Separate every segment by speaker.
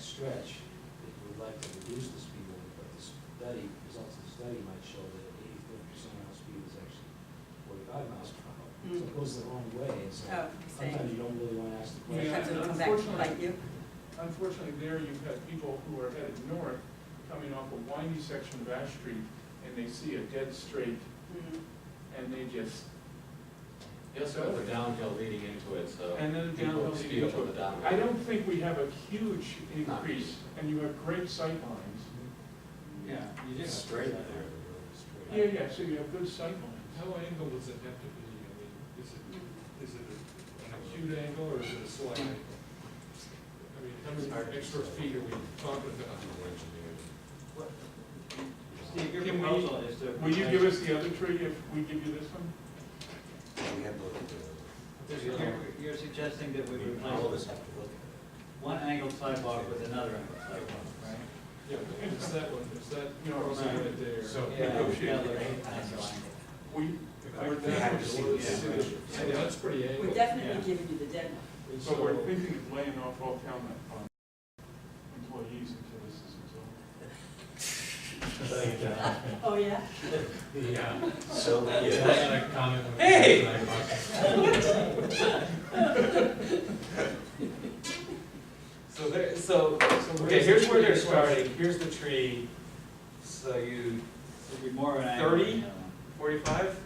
Speaker 1: stretch, that you would like to reduce the speed limit, but the study, results of the study might show that eighty-four percent of our speed is actually forty-five miles per hour. So it
Speaker 2: Mm.
Speaker 1: goes the wrong way, and so
Speaker 2: Oh, I see.
Speaker 1: sometimes you don't really wanna ask the question.
Speaker 2: Sometimes it'll come back to bite you.
Speaker 3: Unfortunately, there you've got people who are headed north, coming off a windy section of Ash Street, and they see a dead straight,
Speaker 2: Mhm.
Speaker 3: and they just,
Speaker 4: You also have the downhill leading into it, so.
Speaker 3: and then the
Speaker 4: people
Speaker 3: downhill.
Speaker 4: Speed up on the downhill.
Speaker 3: I don't think we have a huge
Speaker 4: Not
Speaker 3: increase, and you have great sight lines. Yeah.
Speaker 5: You
Speaker 1: Yeah.
Speaker 5: just,
Speaker 4: Straight there.
Speaker 3: Yeah, yeah, so you have good sight lines.
Speaker 5: how angle does it have to be, I mean, is
Speaker 2: mm.
Speaker 5: it, is it an acute angle or is it a slight angle? I mean, how many extra feet are we talking
Speaker 6: Steve, your
Speaker 3: Can we-
Speaker 6: proposal is to.
Speaker 3: Will you give us the other tree if we give you this one?
Speaker 6: You're, you're suggesting that we
Speaker 4: All of
Speaker 6: replace
Speaker 4: us have to look at
Speaker 6: one angled sidewalk with another angled sidewalk, right?
Speaker 5: Yeah, but it's that one, it's that, you know, it's
Speaker 6: Right.
Speaker 5: right there.
Speaker 4: So-
Speaker 6: Yeah,
Speaker 5: Yeah,
Speaker 6: yeah, the right angle.
Speaker 3: We,
Speaker 5: Or that one, so it's-
Speaker 6: Yeah.
Speaker 5: it's- yeah, that's pretty
Speaker 2: We're
Speaker 5: angled.
Speaker 2: definitely giving you the dead one.
Speaker 3: so we're thinking of laying off all town um, employees until this is resolved.
Speaker 2: Oh, yeah?
Speaker 5: Yeah.
Speaker 4: it. So, yeah.
Speaker 5: I had a comment when I-
Speaker 6: Hey!
Speaker 5: when I bought it.
Speaker 6: So there, so,
Speaker 5: So
Speaker 6: okay, here's where they're
Speaker 5: the question.
Speaker 6: starting, here's the tree, so you,
Speaker 7: It'd be more of an angle.
Speaker 6: 30?
Speaker 7: than uh, the other one.
Speaker 6: forty-five?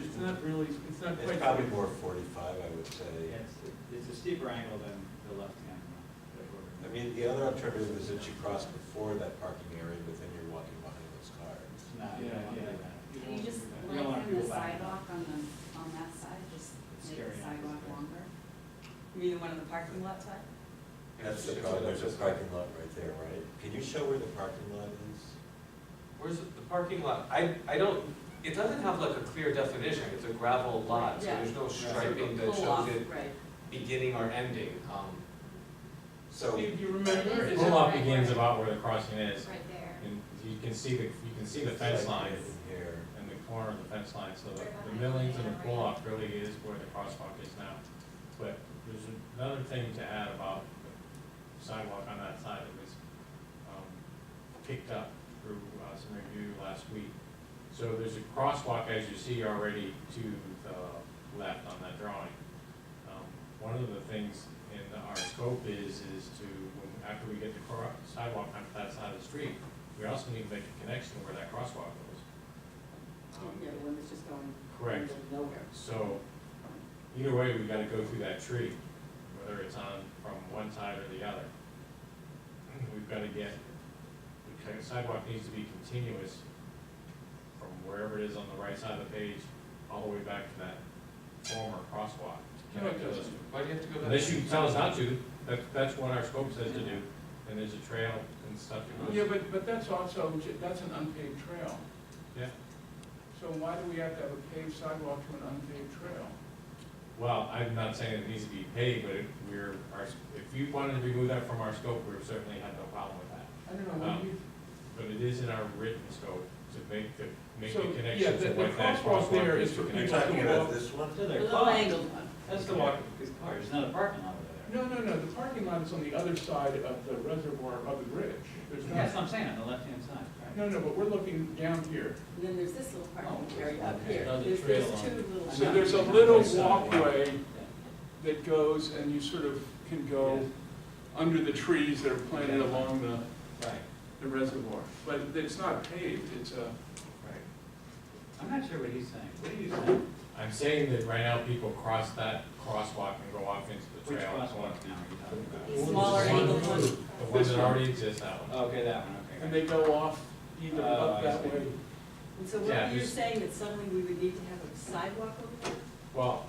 Speaker 3: It's not really, it's not
Speaker 4: It's
Speaker 3: quite.
Speaker 4: probably more forty-five, I would say.
Speaker 7: Yeah, It's, it's a steeper angle than the left angle. that we're-
Speaker 4: I mean, the other alternative is that you cross before that parking area, but then you're walking behind those cars.
Speaker 7: It's not,
Speaker 3: Yeah,
Speaker 7: you don't wanna do
Speaker 3: yeah.
Speaker 7: that.
Speaker 8: Can you just
Speaker 7: We don't wanna
Speaker 8: lengthen the
Speaker 7: go back.
Speaker 8: sidewalk on the, on that side, just
Speaker 7: It's scary
Speaker 8: make the
Speaker 7: enough,
Speaker 8: sidewalk
Speaker 7: isn't it?
Speaker 8: longer?
Speaker 2: You mean the one on the parking lot side?
Speaker 4: That's the problem, there's a parking lot right there, right? Can you show where the parking lot is?
Speaker 7: Where's the the parking lot? I, I don't, it doesn't have like a clear definition. It's a gravel lot, so
Speaker 2: Yeah.
Speaker 7: there's no striping that
Speaker 2: Pull off,
Speaker 7: shows it
Speaker 2: right.
Speaker 7: beginning or ending. Um,
Speaker 4: So,
Speaker 3: Do you remember?
Speaker 8: Is it
Speaker 5: Pull up
Speaker 8: right
Speaker 5: begins
Speaker 8: where-
Speaker 5: about where the crossing is,
Speaker 8: Right there.
Speaker 5: and you can see the, you can see the fence line
Speaker 4: Here.
Speaker 5: and the corner of the fence line, so the the millings and the pull-off really is where the crosswalk is now. But there's another thing to add about the sidewalk on that side that was, um, picked up through uh, some review last week. So there's a crosswalk, as you see already, to the left on that drawing. Um, One of the things in our scope is, is to, when- after we get the cro- sidewalk onto that side of the street, we also need to make a connection where that crosswalk goes. Um,
Speaker 2: Oh, Yeah, the one that's just going.
Speaker 5: Correct.
Speaker 2: into Nowhere.
Speaker 5: So, either way, we gotta go through that tree, whether it's on, from one side or the other. We've gotta get, the sidewalk needs to be continuous from wherever it is on the right side of the page, all the way back to that former crosswalk. to
Speaker 3: No, it
Speaker 5: connect to those.
Speaker 3: doesn't.
Speaker 7: Why do you have to go back?
Speaker 5: Unless you tell us not to, that, that's what our scope says to do, and there's a trail and stuff that
Speaker 3: Yeah,
Speaker 5: goes.
Speaker 3: but, but that's also, ju- that's an unpaved trail.
Speaker 5: Yeah,
Speaker 3: So why do we have to have a paved sidewalk to an unpaved trail?
Speaker 5: well, I'm not saying it needs to be paid, but if we're, our, if you wanted to remove that from our scope, we certainly have no problem with that.
Speaker 3: I don't know, what do you?
Speaker 5: But it is in our written scope to make the, make
Speaker 3: So,
Speaker 5: the
Speaker 3: yeah,
Speaker 5: connection
Speaker 3: the- the
Speaker 5: to what that
Speaker 3: crosswalk there
Speaker 5: crosswalk
Speaker 3: is
Speaker 5: is
Speaker 3: for
Speaker 5: to
Speaker 4: You're
Speaker 5: connect.
Speaker 3: people
Speaker 5: to.
Speaker 4: talking about this one?
Speaker 7: So
Speaker 2: The
Speaker 7: their
Speaker 2: little
Speaker 7: car,
Speaker 2: angled one.
Speaker 7: that's the walk, his car, there's not a parking lot over there.
Speaker 3: No, no, no, the parking lot is on the other side of the reservoir of the bridge. There's
Speaker 7: That's what
Speaker 3: not,
Speaker 7: I'm saying, on the left-hand side, right?
Speaker 3: no, no, but we're looking down here.
Speaker 2: And then there's this little parking
Speaker 7: Oh,
Speaker 2: area up
Speaker 7: okay.
Speaker 2: here.
Speaker 7: Another
Speaker 2: There's,
Speaker 7: trail
Speaker 2: there's
Speaker 7: on
Speaker 2: two
Speaker 7: it.
Speaker 2: little.
Speaker 7: I
Speaker 3: So
Speaker 7: know.
Speaker 3: there's a little walkway that goes and you sort of can go under the trees that are planted along the,
Speaker 7: Right,
Speaker 3: the reservoir. But it's not paved, it's uh, a.
Speaker 7: right. I'm not sure what he's saying. What are you saying?
Speaker 5: I'm saying that right now people cross that crosswalk and go off into the
Speaker 7: Which
Speaker 5: trail.
Speaker 7: crosswalk now are you talking about?
Speaker 2: The Smaller
Speaker 5: The
Speaker 2: angled
Speaker 5: one-
Speaker 2: one.
Speaker 5: The one that already exists, that one.
Speaker 7: Okay, that one, okay.
Speaker 3: And they go off either
Speaker 7: Oh,
Speaker 3: up
Speaker 7: I
Speaker 3: that
Speaker 7: see.
Speaker 3: way.
Speaker 2: And so
Speaker 5: Yeah,
Speaker 2: what you're
Speaker 5: there's-
Speaker 2: saying that suddenly we would need to have a sidewalk over there
Speaker 5: Well,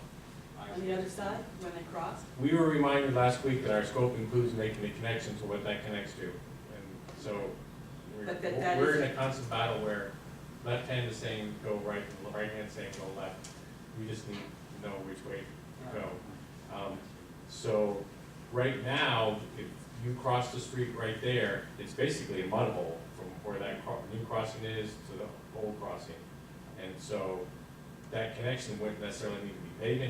Speaker 7: I
Speaker 2: on
Speaker 7: see.
Speaker 2: the other side when they cross?
Speaker 5: we were reminded last week that our scope includes making the connection to what that connects to. And so
Speaker 2: But that- that
Speaker 5: we're, we're in
Speaker 2: is-
Speaker 5: a constant battle where left hand is saying go right, and right hand is saying go left. We just need to know which way to go. Um, So, right now, if you cross the street right there, it's basically a mud hole from where that cro- new crossing is to the old crossing. And so, that connection wouldn't necessarily need to be paved anymore.